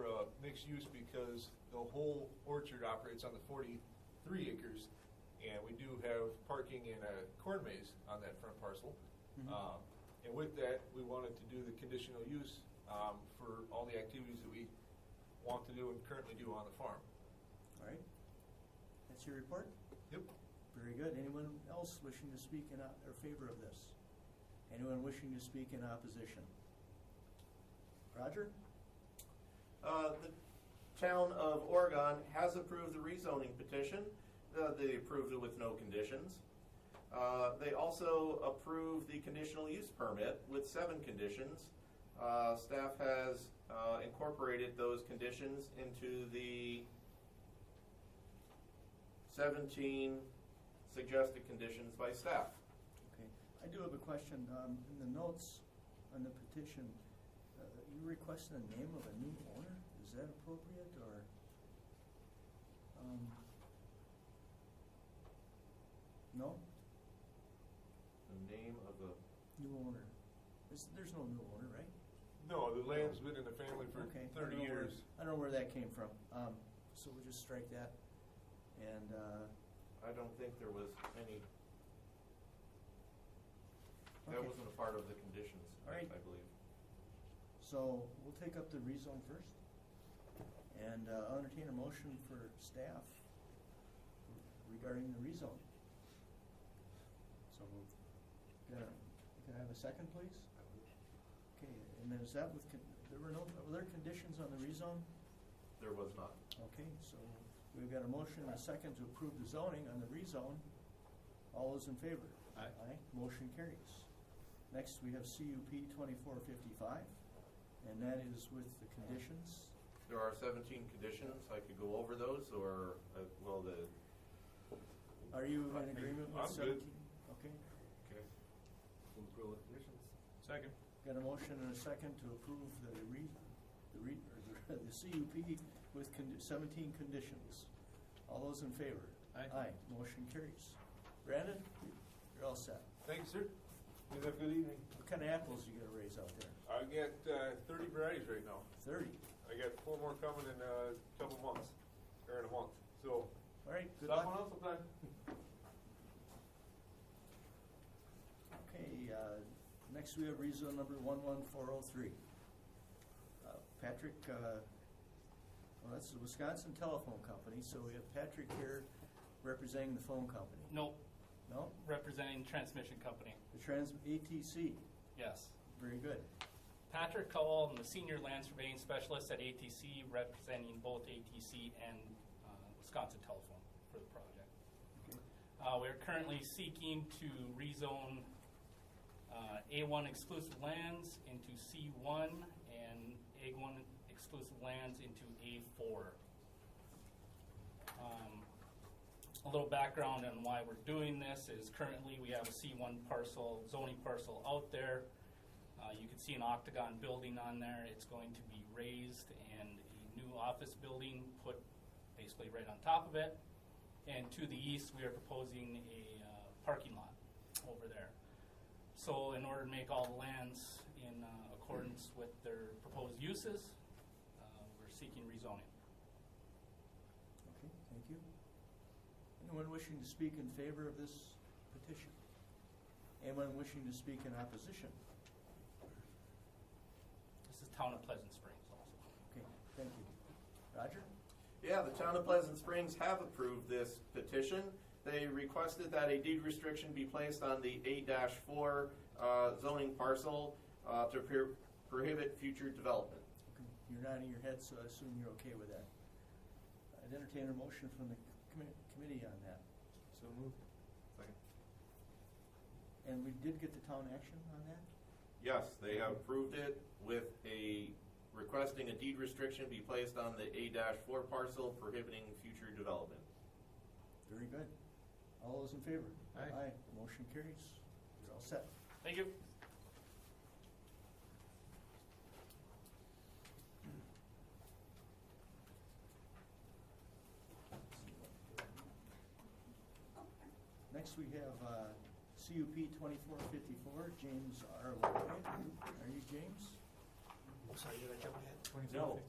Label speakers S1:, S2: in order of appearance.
S1: uh, mixed use because the whole orchard operates on the forty-three acres. And we do have parking and a corn maze on that front parcel.
S2: Mhm.
S1: Um, And with that, we wanted to do the conditional use um, for all the activities that we want to do and currently do on the farm.
S2: All right. That's your report?
S1: Yep.
S2: Very good. Anyone else wishing to speak in, o- or favor of this? Anyone wishing to speak in opposition? Roger?
S3: Uh, The town of Oregon has approved the rezoning petition. Uh, They approved it with no conditions. Uh, They also approved the conditional use permit with seven conditions. Uh, Staff has uh, incorporated those conditions into the 17 suggested conditions by staff.
S2: Okay. I do have a question. Um, in the notes on the petition, uh, you requested a name of a new owner? Is that appropriate or? um, No?
S3: The name of the
S2: New owner. There's, there's no new owner, right?
S1: No, the land's been in the family for
S2: Okay, I
S1: thirty
S2: don't know where-
S1: years.
S2: I don't know where that came from, um, so we'll just strike that, and, uh,
S3: I don't think there was any, that
S2: Okay.
S3: wasn't a part of the conditions,
S2: All right.
S3: I I believe.
S2: so we'll take up the rezone first. And, uh, I'll entertain a motion for staff regarding the rezone.
S4: So moved.
S2: Can I- can I have a second, please? Okay, and then is that with, con- there were no, were there conditions on the rezone?
S3: There was not.
S2: Okay, so we've got a motion and a second to approve the zoning on the rezone. All those in favor?
S4: Aye.
S2: motion carries. Next, we have CUP twenty-four fifty-five, and that is with the conditions.
S3: There are seventeen conditions, I could go over those, or, uh, well, the,
S2: Are you in agreement
S1: I'm
S2: with
S1: good.
S2: seventeen? Okay,
S3: okay,
S1: Second.
S2: got a motion and a second to approve the re, the re, or the, the CUP with condi- seventeen conditions. All those in favor?
S4: Aye.
S2: Aye, motion carries. Brandon, you're all set.
S1: Thank you, sir. You have a good evening.
S2: What kind of apples you gonna raise out there?
S1: I got uh, thirty varieties right now.
S2: Thirty.
S1: I got four more coming in uh, a couple months, or in a month. So
S2: All right, good
S1: stop on
S2: luck.
S1: up sometime.
S2: Okay, uh, next we have rezone number one one four oh three. Patrick, uh, well, that's the Wisconsin Telephone Company, so we have Patrick here representing the phone company.
S5: Nope,
S2: No,
S5: representing transmission company,
S2: the trans, ATC,
S5: yes.
S2: very good.
S5: Patrick Cowell, I'm the senior land surveying specialist at ATC, representing both ATC and uh, Wisconsin Telephone for the project.
S2: Okay.
S5: Uh, We're currently seeking to rezone uh, A1 exclusive lands into C1 and A1 exclusive lands into A4. Um, A little background on why we're doing this is currently we have a C1 parcel, zoning parcel out there. Uh, You can see an octagon building on there. It's going to be raised and a new office building put basically right on top of it. And to the east, we are proposing a uh, parking lot over there. So in order to make all the lands in uh, accordance with their proposed uses, uh, we're seeking rezoning.
S2: Okay, thank you. Anyone wishing to speak in favor of this petition? Anyone wishing to speak in opposition?
S5: This is Town of Pleasant Springs also.
S2: Okay, thank you. Roger?
S3: Yeah, the town of Pleasant Springs have approved this petition. They requested that a deed restriction be placed on the eight four, uh, zoning parcel, uh, to pro- prohibit future development.
S2: Okay, You're nodding your head, so I assume you're okay with that. I'd entertain a motion from the commi- committee on that.
S4: So moved.
S2: And we did get the town action on that?
S3: Yes, they have approved it with a, requesting a deed restriction be placed on the A four parcel prohibiting future development.
S2: Very good. All those in favor?
S4: Aye.
S2: Aye, motion carries. You're all set.
S5: Thank you.
S2: Next, we have uh, CUP twenty-four fifty-four, James R. Lloyd. Are you James?
S4: I'm sorry, did I jump ahead?
S3: No.